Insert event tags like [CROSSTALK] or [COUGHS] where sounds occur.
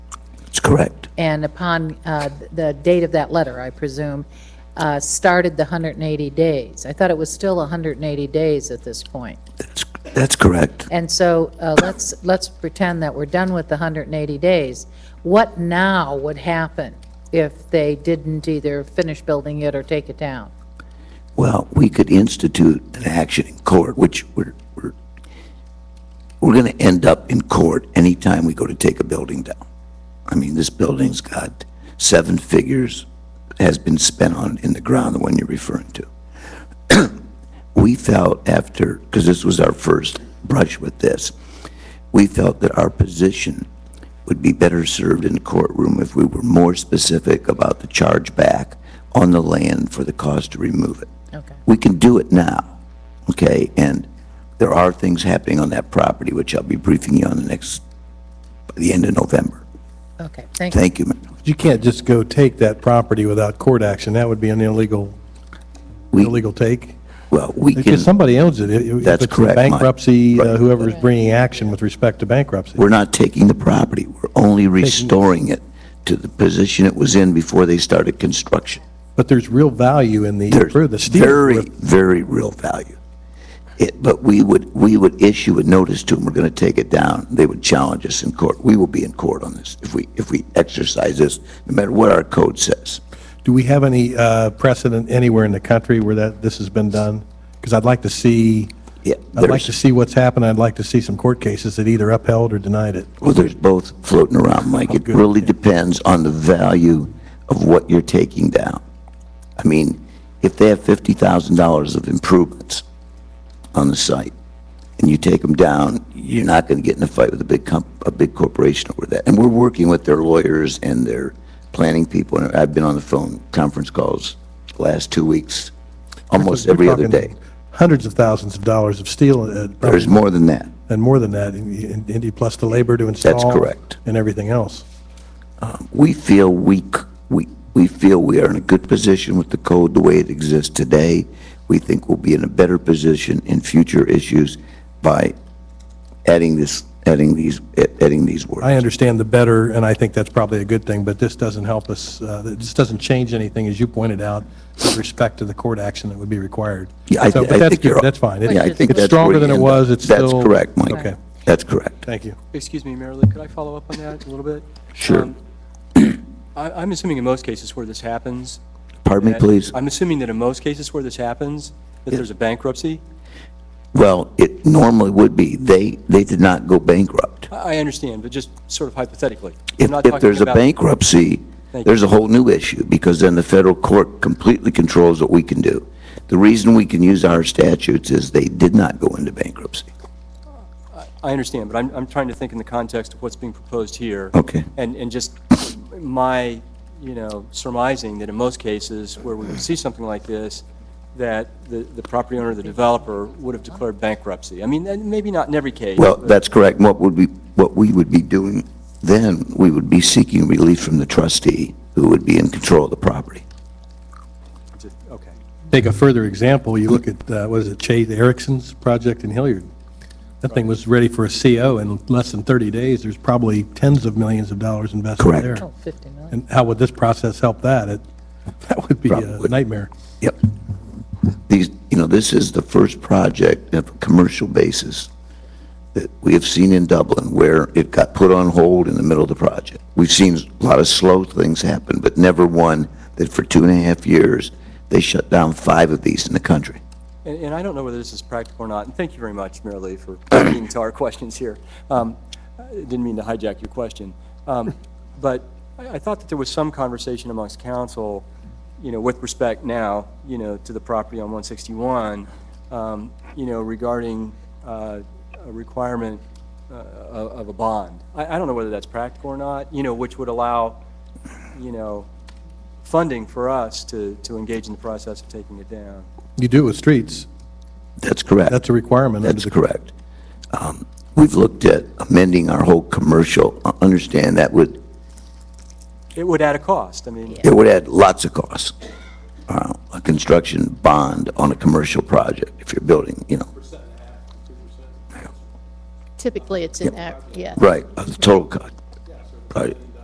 Correct. and upon uh, the date of that letter, I presume, uh, started the 180 days. I thought it was still 180 days at this point. That's, that's correct. And so uh, let's, let's pretend that we're done with the 180 days. What now would happen if they didn't either finish building it or take it down? Well, we could institute an action in court, which we're, we're, we're gonna end up in court anytime we go to take a building down. I mean, this building's got seven figures, has been spent on in the ground, the one you're referring to. [CLEARS THROAT] We felt after, because this was our first brush with this, we felt that our position would be better served in courtroom if we were more specific about the chargeback on the land for the cost to remove it. Okay. We can do it now, okay? And there are things happening on that property, which I'll be briefing you on the next, by the end of November. Okay, thank you. Thank you, ma'am. You can't just go take that property without court action. That would be an illegal, We- illegal take. Well, we can, Because somebody owns it. If- if That's it's in correct, Mike. Bankruptcy, Right. uh, whoever's bringing action with respect to bankruptcy. we're not taking the property, we're only restoring it to the position it was in before they started construction. But there's real value in the, There's for the steel. Very, very real value. It, but we would, we would issue a notice to them, we're gonna take it down. They would challenge us in court. We will be in court on this if we, if we exercise this, no matter what our code says. Do we have any uh, precedent anywhere in the country where that, this has been done? Because I'd like to see, Yeah, I'd like there's- to see what's happened. I'd like to see some court cases that either upheld or denied it. Well, there's both floating around, Mike. It really depends on the value of what you're taking down. I mean, if they have $50,000 of improvements on the site, and you take them down, you're not going to get in a fight with a big comp, a big corporation over that. And we're working with their lawyers and their planning people, and I've been on the phone conference calls the last two weeks, almost We're every other talking day. Hundreds of thousands of dollars of steel uh, There's more than that. and more than that, in- in- in- plus the labor to install. correct. And everything else. we feel we, c- we, we feel we are in a good position with the code the way it exists today. We think we'll be in a better position in future issues by adding this, adding these, adding these I words. understand the better, and I think that's probably a good thing, but this doesn't help us, uh, this doesn't change anything, as you pointed out, with respect to the court action that would be required. Yeah, I So, th- but I that's think good. you're- That's fine. It- Yeah, I think that's It's where stronger you than it end was, up. it's still... That's correct, Mike. Okay, That's correct. thank you. Excuse me, Mary Lou, could I follow up on that a little bit? Sure. Um, I- I'm assuming in most cases where this happens... Pardon me, that- please? I'm assuming that in most cases where this happens, that there's a bankruptcy. Well, it normally would be. They, they did not go bankrupt. I I understand, but just sort of hypothetically. I'm If, not if talking there's a about- bankruptcy, Thank there's a whole new issue, because then the federal court completely controls what we can do. The reason we can use our statutes is they did not go into bankruptcy. I understand, but I'm I'm trying to think in the context of what's being proposed here. Okay. And and just my, you know, surmising that in most cases where we would see something like this, that the the property owner, the developer, would have declared bankruptcy. I mean, and maybe not in every case. Well, but- that's correct. What would we, what we would be doing then, we would be seeking relief from the trustee who would be in control of the property. Okay. Take a further example, you look at, uh, what is it, Chase Erickson's project in Hilliard. That thing was ready for a CO in less than 30 days, there's probably tens of millions of dollars invested Correct. there. Oh, 50 million. And how would this process help that? It- [LAUGHS] That would be a Probably. nightmare. Yep. These, you know, this is the first project of a commercial basis that we have seen in Dublin where it got put on hold in the middle of the project. We've seen a lot of slow things happen, but never one that for two and a half years, they shut down five of these in the country. And, and I don't know whether this is practical or not, and thank you very much, Mary Lee, for [COUGHS] getting to our questions here. Um, I Didn't mean to hijack your question. Um, [LAUGHS] But I, I thought that there was some conversation amongst council, you know, with respect now, you know, to the property on 161, um, you know, regarding uh, a requirement uh, of of a bond. I, I don't know whether that's practical or not, you know, which would allow, you know, funding for us to, to engage in the process of taking it down. You do it with streets. That's correct. That's a requirement under That's the correct. Um, We've looked at amending our whole commercial, Uh, understand that would, It would add a cost, I mean, it would add lots of costs. Uh, A construction bond on a commercial project, if you're building, you know, Typically, it's an act, yeah. right, of the total cost. Right.